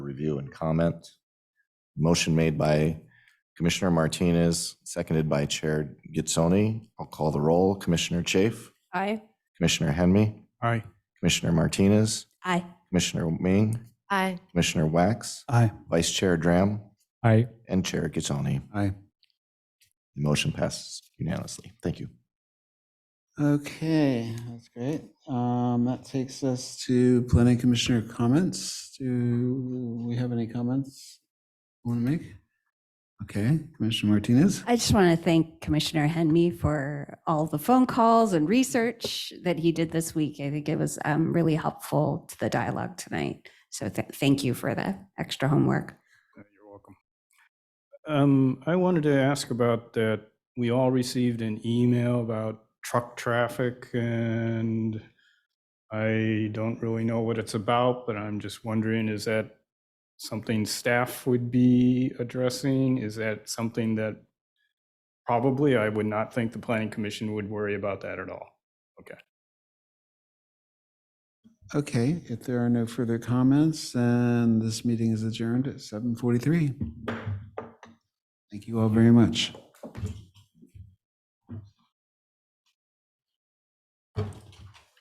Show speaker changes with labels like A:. A: review and comment. Motion made by Commissioner Martinez, seconded by Chair Gitzoni. I'll call the roll. Commissioner Chafe,
B: Aye.
A: Commissioner Henry,
C: Aye.
A: Commissioner Martinez,
B: Aye.
A: Commissioner Ming,
B: Aye.
A: Commissioner Wax,
C: Aye.
A: Vice Chair Dram,
C: Aye.
A: and Chair Gitzoni.
C: Aye.
A: The motion passes unanimously. Thank you.
C: Okay, that's great. Um, that takes us to planning commissioner comments. Do we have any comments want to make? Okay, Commissioner Martinez?
B: I just want to thank Commissioner Henme for all the phone calls and research that he did this week. I think it was um, really helpful to the dialogue tonight. So th- thank you for the extra homework.
D: Uh, You're welcome. Um, I wanted to ask about that. We all received an email about truck traffic and I don't really know what it's about, but I'm just wondering, is that something staff would be addressing? Is that something that probably I would not think the planning commission would worry about that at all?
C: Okay, if there are no further comments, then this meeting is adjourned at 7:43. Thank you all very much.